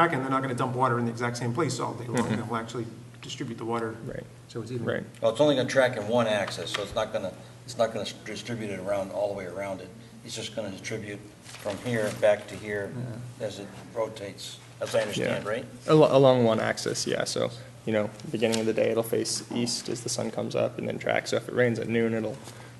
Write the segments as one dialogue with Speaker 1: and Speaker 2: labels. Speaker 1: back, and they're not gonna dump water in the exact same place all day long. They'll actually distribute the water.
Speaker 2: Mm-hmm. Right.
Speaker 1: So it's even.
Speaker 2: Right,
Speaker 3: Well, it's only gonna track in one axis, so it's not gonna, it's not gonna distribute it around, all the way around it. It's just gonna distribute from here back to here as it rotates, as I
Speaker 2: yeah.
Speaker 3: understand, right?
Speaker 2: Al- Along one axis, yeah, so, you know, beginning of the day, it'll face east as the sun comes up and then track. So if it rains at noon, it'll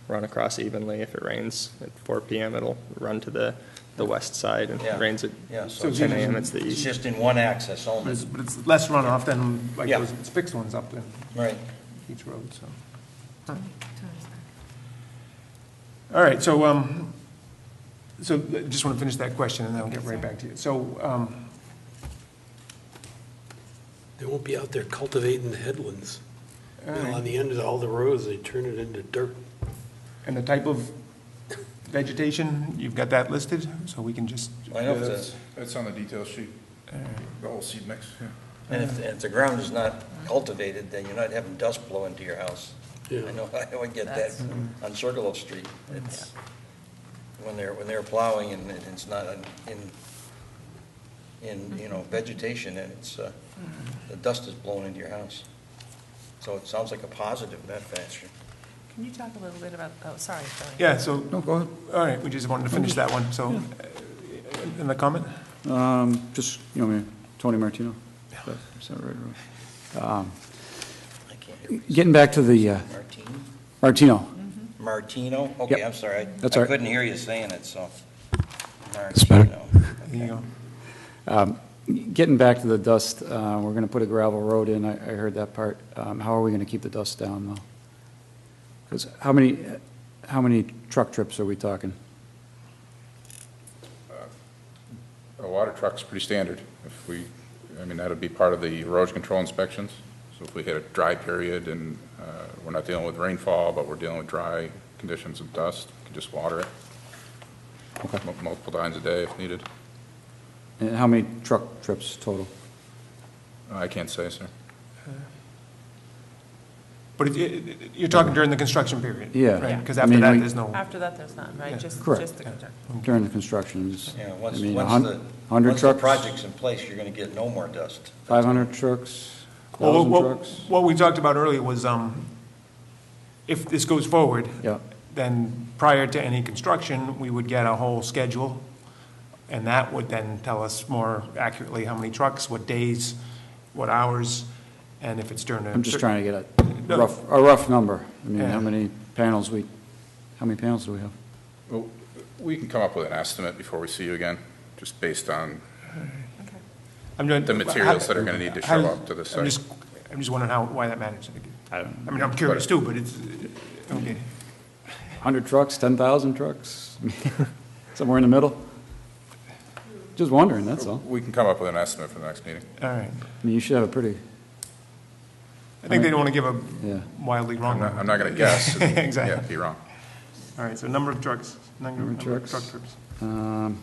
Speaker 2: run across evenly. If it rains at four PM, it'll run to the, the west side. And if
Speaker 3: Yeah.
Speaker 2: it rains at
Speaker 3: Yeah, so
Speaker 2: ten AM, it's the
Speaker 3: it's
Speaker 2: east.
Speaker 3: just in one axis
Speaker 1: But
Speaker 3: only,
Speaker 1: it's, but it's less runoff than like
Speaker 3: Yeah.
Speaker 1: those fixed ones up in
Speaker 3: right?
Speaker 1: each road, so. All right, so, um, so I just want to finish that question and then I'll get right back to you. So, um,
Speaker 4: They won't be out there cultivating the headlands. You know, On the end of all the roads, they turn it into dirt.
Speaker 1: and the type of vegetation, you've got that listed, so we can just.
Speaker 3: I know it's
Speaker 5: That's on the detail sheet, the whole seed mix, yeah.
Speaker 3: a, and if, and if the ground is not cultivated, then you're not having dust blow into your house. I
Speaker 4: Yeah.
Speaker 3: know, I always get that on Circle Street. It's, when they're, when they're plowing and it- it's not in, in, you know, vegetation and it's, uh,
Speaker 6: Mm-hmm.
Speaker 3: the dust is blowing into your house. So it sounds like a positive, that fashion.
Speaker 7: Can you talk a little bit about, oh, sorry, Tony.
Speaker 1: Yeah, so,
Speaker 6: No, go ahead.
Speaker 1: all right, we just wanted to finish that one, so, uh, in the comment?
Speaker 6: Um, Just, you know, me, Tony Martino. Is that right, Roy?
Speaker 3: I can't hear.
Speaker 6: Getting back to the, uh,
Speaker 3: Martino?
Speaker 6: Martino,
Speaker 3: Martino? Okay,
Speaker 6: Yep.
Speaker 3: I'm sorry. I-
Speaker 6: That's all
Speaker 3: I
Speaker 6: right.
Speaker 3: couldn't hear you saying it, so.
Speaker 6: better.
Speaker 3: Martino.
Speaker 1: There you go.
Speaker 6: getting back to the dust, uh, we're going to put a gravel road in, I I heard that part. Um, How are we going to keep the dust down, though? Because how many, how many truck trips are we talking?
Speaker 5: A water truck's pretty standard. If we, I mean, that'd be part of the erosion control inspections. So if we hit a dry period and uh, we're not dealing with rainfall, but we're dealing with dry conditions of dust, we can just water it. Mul- Multiple times a day if needed.
Speaker 6: And how many truck trips total?
Speaker 5: I can't say, sir.
Speaker 1: But if you- you're talking during the construction period?
Speaker 6: Yeah.
Speaker 1: Right, because
Speaker 6: Yeah. I
Speaker 1: after
Speaker 6: mean,
Speaker 1: that,
Speaker 6: we-
Speaker 1: there's no,
Speaker 7: After that, there's none, right? Just,
Speaker 6: Correct.
Speaker 7: just the contract.
Speaker 6: During the constructions?
Speaker 3: Yeah, once,
Speaker 6: I mean,
Speaker 3: once
Speaker 6: 100
Speaker 3: the,
Speaker 6: 100
Speaker 3: once the
Speaker 6: trucks?
Speaker 3: project's in place, you're gonna get no more dust.
Speaker 6: 500 trucks?
Speaker 1: Well,
Speaker 6: 1,000
Speaker 1: what-
Speaker 6: trucks?
Speaker 1: What we talked about earlier was, um, if this goes forward.
Speaker 6: Yeah.
Speaker 1: Then prior to any construction, we would get a whole schedule, and that would then tell us more accurately how many trucks, what days, what hours, and if it's during a.
Speaker 6: I'm just trying to get
Speaker 1: No.
Speaker 6: a rough, a rough number. I mean,
Speaker 1: Yeah.
Speaker 6: how many panels we, how many panels do we have?
Speaker 5: Well, We can come up with an estimate before we see you again, just based on
Speaker 1: I'm doing-
Speaker 5: the materials that are gonna need to show
Speaker 1: How-
Speaker 5: up to the
Speaker 1: I'm
Speaker 5: site.
Speaker 1: just, I'm just wondering how, why that matters. I don't. I mean, I'm curious too, but it's, okay.
Speaker 6: 100 trucks, 10,000 trucks? Somewhere in the middle? Just wondering, that's all.
Speaker 5: We can come up with an estimate for the next meeting.
Speaker 1: All right.
Speaker 6: I mean, you should have a pretty,
Speaker 1: I think they don't want to give a
Speaker 6: Yeah.
Speaker 1: wildly wrong.
Speaker 5: I'm not,
Speaker 1: number.
Speaker 5: I'm not gonna guess. and,
Speaker 1: Exactly.
Speaker 5: Yeah, be wrong.
Speaker 1: All right, so number of trucks, number
Speaker 6: Number of
Speaker 1: number of truck
Speaker 6: trucks.
Speaker 1: trips.
Speaker 6: um,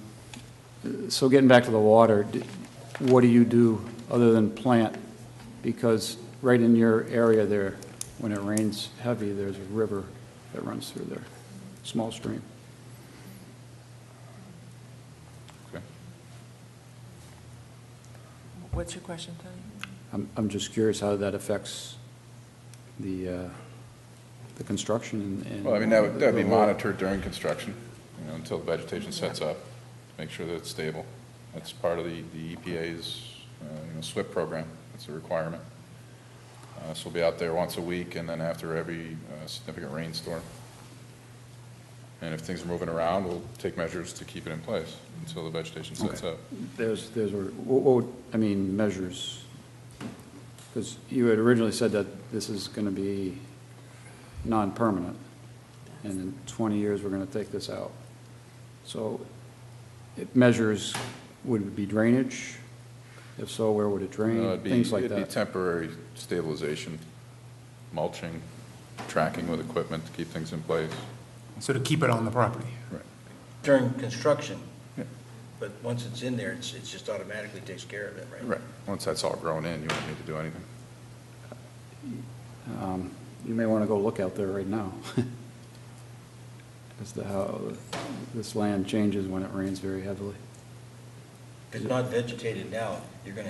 Speaker 6: so getting back to the water, d- what do you do other than plant? Because right in your area there, when it rains heavy, there's a river that runs through there, small stream.
Speaker 5: Okay.
Speaker 7: What's your question, Tony?
Speaker 6: I'm, I'm just curious how that affects the, uh, the construction and.
Speaker 5: Well, I mean, that would, that would be
Speaker 6: the whole-
Speaker 5: monitored during construction, you know, until the vegetation sets up, make sure that it's stable. That's part of the, the EPA's, uh, you know, SWIP program, that's a requirement. Uh, so we'll be out there once a week and then after every uh, significant rainstorm. And if things are moving around, we'll take measures to keep it in place until the vegetation sets up.
Speaker 6: There's, there's, a- what, what would- I mean, measures, because you had originally said that this is going to be non-permanent, and in 20 years, we're going to take this out. So it measures, would it be drainage? If so, where would it
Speaker 5: Uh,
Speaker 6: drain?
Speaker 5: it'd be-
Speaker 6: Things like
Speaker 5: It'd be
Speaker 6: that.
Speaker 5: temporary stabilization, mulching, tracking with equipment to keep things in place.
Speaker 1: So to keep it on the property.
Speaker 3: During construction.
Speaker 5: Yeah.
Speaker 3: But once it's in there, it's, it's just automatically takes care of it, right?
Speaker 5: Right, once that's all grown in, you won't need to do anything.
Speaker 6: Um, You may want to go look out there right now as to how this land changes when it rains very heavily.
Speaker 3: If it's not vegetated now, you're gonna